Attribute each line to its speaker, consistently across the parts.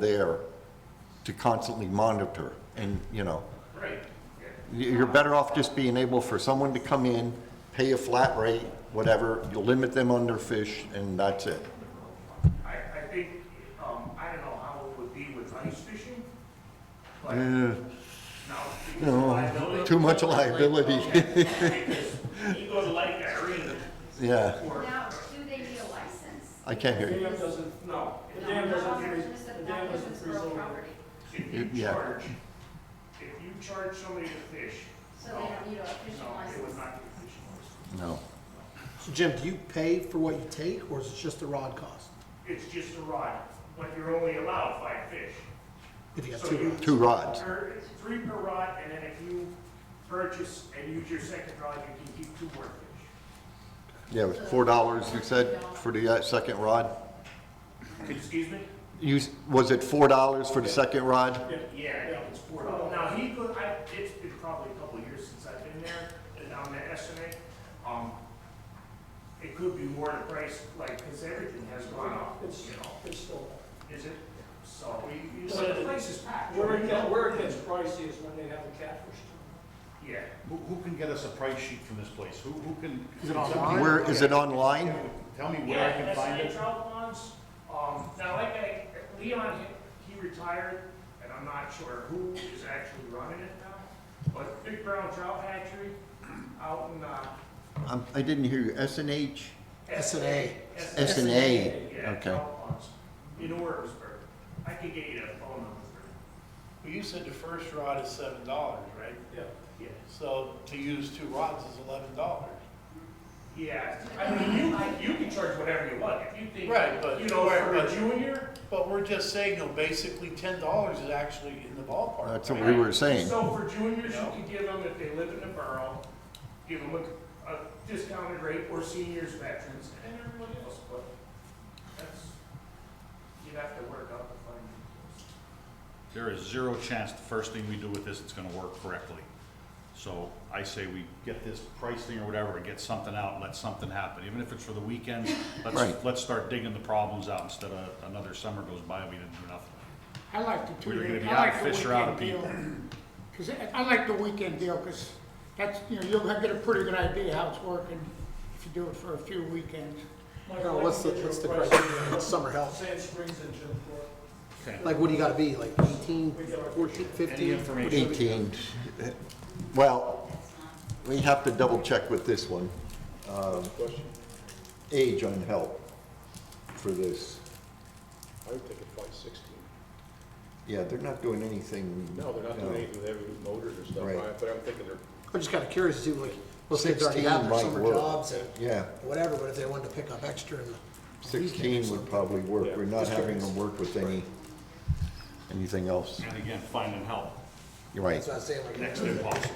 Speaker 1: there to constantly monitor, and, you know,
Speaker 2: Right,
Speaker 1: you- you're better off just being able for someone to come in, pay a flat rate, whatever, you limit them on their fish, and that's it.
Speaker 2: I, I think, um, I don't know how it would be with ice fishing, but now.
Speaker 1: Eh,
Speaker 2: it's
Speaker 1: You know,
Speaker 2: liability,
Speaker 1: too much liability,
Speaker 2: because You go to Lake Irene
Speaker 1: yeah,
Speaker 2: or,
Speaker 3: Now, do they need a license?
Speaker 1: I can't
Speaker 4: The
Speaker 1: hear you.
Speaker 4: dam doesn't,
Speaker 2: no,
Speaker 4: the
Speaker 3: No,
Speaker 4: dam
Speaker 3: not
Speaker 4: doesn't,
Speaker 3: on their-
Speaker 4: freeze-
Speaker 3: just
Speaker 4: the
Speaker 3: if
Speaker 4: dam
Speaker 3: that
Speaker 4: doesn't
Speaker 3: person's
Speaker 4: freeze
Speaker 3: rural
Speaker 4: over.
Speaker 3: property,
Speaker 2: if you
Speaker 1: Yeah.
Speaker 2: charge, if you charge somebody to fish,
Speaker 3: So
Speaker 2: no,
Speaker 3: they don't need a fishing
Speaker 2: no, it would
Speaker 3: license.
Speaker 2: not be a fishing license.
Speaker 1: No,
Speaker 5: So Jim, do you pay for what you take, or is it just the rod cost?
Speaker 2: It's just a rod, but you're only allowed five fish.
Speaker 5: If you got
Speaker 2: So
Speaker 5: two
Speaker 2: you-
Speaker 5: rods?
Speaker 1: two rods,
Speaker 2: Per- it's Three per rod, and then if you purchase and use your second rod, you can keep two more fish.
Speaker 1: yeah, it was four dollars, you said, for the uh, second rod?
Speaker 2: Excuse me?
Speaker 1: You, s- was it four dollars for the second rod?
Speaker 2: Yeah, Oh, no, it's four dollars. Now, he could, I, it's been probably a couple of years since I've been there, and I'm gonna estimate, um, it could be more the price, like, because everything has gone up,
Speaker 4: It's,
Speaker 2: you know,
Speaker 4: it's still,
Speaker 2: is it? So, you, you,
Speaker 4: But
Speaker 2: the place is packed.
Speaker 4: where it
Speaker 2: right
Speaker 4: gets,
Speaker 2: now.
Speaker 4: where it gets pricey is when they have the catfish. tournament.
Speaker 2: Yeah,
Speaker 6: Who, who can get us a price sheet from this place? Who, who can?
Speaker 5: Is it
Speaker 6: can somebody-
Speaker 5: online?
Speaker 1: Where, is it online?
Speaker 6: Tell me where I
Speaker 2: yeah,
Speaker 6: can
Speaker 2: that's
Speaker 6: find
Speaker 2: the
Speaker 6: it.
Speaker 2: trout ponds, um, now, like, I, Leon, he- he retired, and I'm not sure who is actually running it now, but Big Brown Trout Hatchery out in, uh,
Speaker 1: Um, I didn't hear you, S and H?
Speaker 5: S and A.
Speaker 2: S-
Speaker 1: S and A,
Speaker 2: Yeah,
Speaker 1: okay.
Speaker 2: Alphonse, in Orisburg. I could get you that phone number.
Speaker 7: Well, you said the first rod is seven dollars, right?
Speaker 4: Yeah.
Speaker 2: Yeah.
Speaker 7: So to use two rods is eleven dollars.
Speaker 2: Yeah, I mean, you, can- you can charge whatever you want, if you think.
Speaker 7: Right, but-
Speaker 2: You know, for a
Speaker 7: but-
Speaker 2: junior.
Speaker 7: But we're just saying, you know, basically ten dollars is actually in the ballpark.
Speaker 1: That's what we were saying.
Speaker 2: So for juniors, you
Speaker 7: No.
Speaker 2: could give them, if they live in the borough, give them a, a discounted rate, or seniors, veterans, and everyone else, but that's, you'd have to work out the findings.
Speaker 6: There is zero chance the first thing we do with this, it's gonna work correctly. So I say we get this pricing or whatever, and get something out, and let something happen. Even if it's for the weekend,
Speaker 1: Right.
Speaker 6: let's, let's start digging the problems out instead of another summer goes by, and we didn't do nothing.
Speaker 8: I like the two,
Speaker 6: We're gonna be
Speaker 8: I
Speaker 6: out
Speaker 8: like
Speaker 6: of
Speaker 8: the
Speaker 6: fish or out of
Speaker 8: weekend deal. Cause I, I like the weekend deal, cause that's, you know, you're gonna get a pretty good idea how it's working if you do it for a few weekends.
Speaker 4: Mike,
Speaker 5: No,
Speaker 4: I
Speaker 5: what's the,
Speaker 4: can get you
Speaker 5: what's
Speaker 4: a
Speaker 5: the
Speaker 4: price.
Speaker 5: criteria, what's summer help?
Speaker 4: Sand Springs and Jim Thorpe.
Speaker 6: Okay.
Speaker 5: Like, what do you gotta be, like eighteen, fourteen,
Speaker 6: Any
Speaker 5: fifteen?
Speaker 6: information?
Speaker 1: 18, well, we have to double check with this one. Um, Age on help for this.
Speaker 9: I would think it's probably sixteen.
Speaker 1: Yeah, they're not doing anything.
Speaker 9: No, they're not doing anything with every motors and stuff,
Speaker 1: Right.
Speaker 9: I- but I'm thinking they're,
Speaker 5: I'm just kinda curious to see, like, what kids already
Speaker 1: 16
Speaker 5: have their
Speaker 1: might
Speaker 5: summer
Speaker 1: work.
Speaker 5: jobs and
Speaker 1: Yeah,
Speaker 5: whatever, but if they wanted to pick up extra in the.
Speaker 1: 16 would probably work. We're not
Speaker 5: Yeah.
Speaker 1: having them work with any, anything else.
Speaker 6: And again, finding help,
Speaker 1: You're right.
Speaker 5: That's what I'm saying, like,
Speaker 6: next
Speaker 5: cause
Speaker 6: to impossible.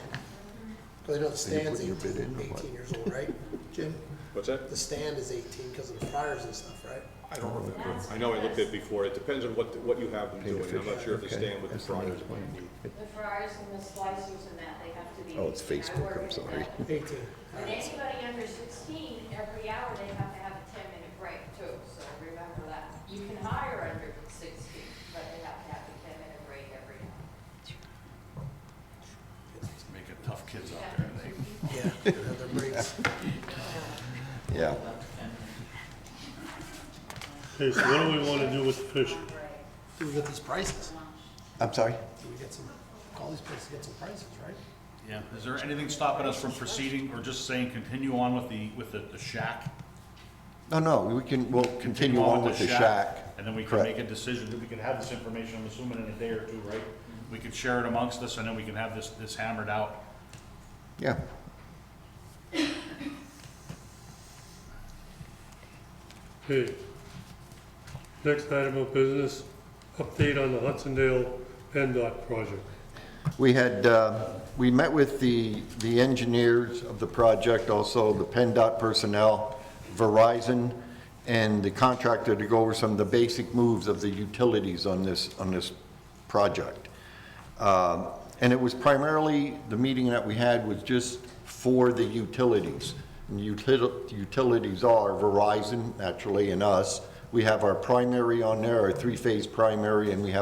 Speaker 5: I know the
Speaker 1: Then you put
Speaker 5: stand's
Speaker 1: your bid
Speaker 5: 18
Speaker 1: in or
Speaker 5: 18
Speaker 1: what?
Speaker 5: years old, right, Jim?
Speaker 9: what's that?
Speaker 5: The stand is eighteen because of the fryers and stuff, right?
Speaker 9: I don't remember. I know I looked at it before, it depends on what, what you have them
Speaker 1: Pay the
Speaker 9: doing, I'm not
Speaker 1: fish.
Speaker 9: sure if they
Speaker 1: Okay.
Speaker 9: stand with the
Speaker 1: That's the
Speaker 9: fryers.
Speaker 1: next one.
Speaker 10: The fryers and the slicers and that, they have to be.
Speaker 1: Oh, it's
Speaker 10: 18. I
Speaker 1: Facebook,
Speaker 10: work
Speaker 1: I'm
Speaker 10: at
Speaker 1: sorry.
Speaker 10: that.
Speaker 5: Eighteen. All
Speaker 10: And
Speaker 5: right.
Speaker 10: anybody under sixteen, every hour they have to have a ten minute break too, so remember that. You can hire under sixteen, but they have to have a ten minute break every hour.
Speaker 6: Making tough kids out there, they.
Speaker 5: Yeah, another breaks.
Speaker 1: Yeah.
Speaker 11: Okay, so what do we want to do with the fishing?
Speaker 5: Do we get these prices?
Speaker 1: I'm sorry?
Speaker 5: Do we get some, all these places get some prices, right?
Speaker 6: Yeah, is there anything stopping us from proceeding or just saying continue on with the, with the the shack?
Speaker 1: No, no, we can, we'll continue on with the shack.
Speaker 6: And then we can
Speaker 1: Correct.
Speaker 6: make a decision, we can have this information, I'm assuming in a day or two, right? We could share it amongst us and then we can have this, this hammered out.
Speaker 1: Yeah.
Speaker 11: Okay. Next item of business, update on the Hudsondale PennDOT project.
Speaker 1: We had, uh, we met with the, the engineers of the project, also the PennDOT personnel, Verizon, and the contractor to go over some of the basic moves of the utilities on this, on this project. Um, And it was primarily, the meeting that we had was just for the utilities. And util- Utilities are Verizon, naturally, and us, We have our primary on there, our three-phase primary, and we have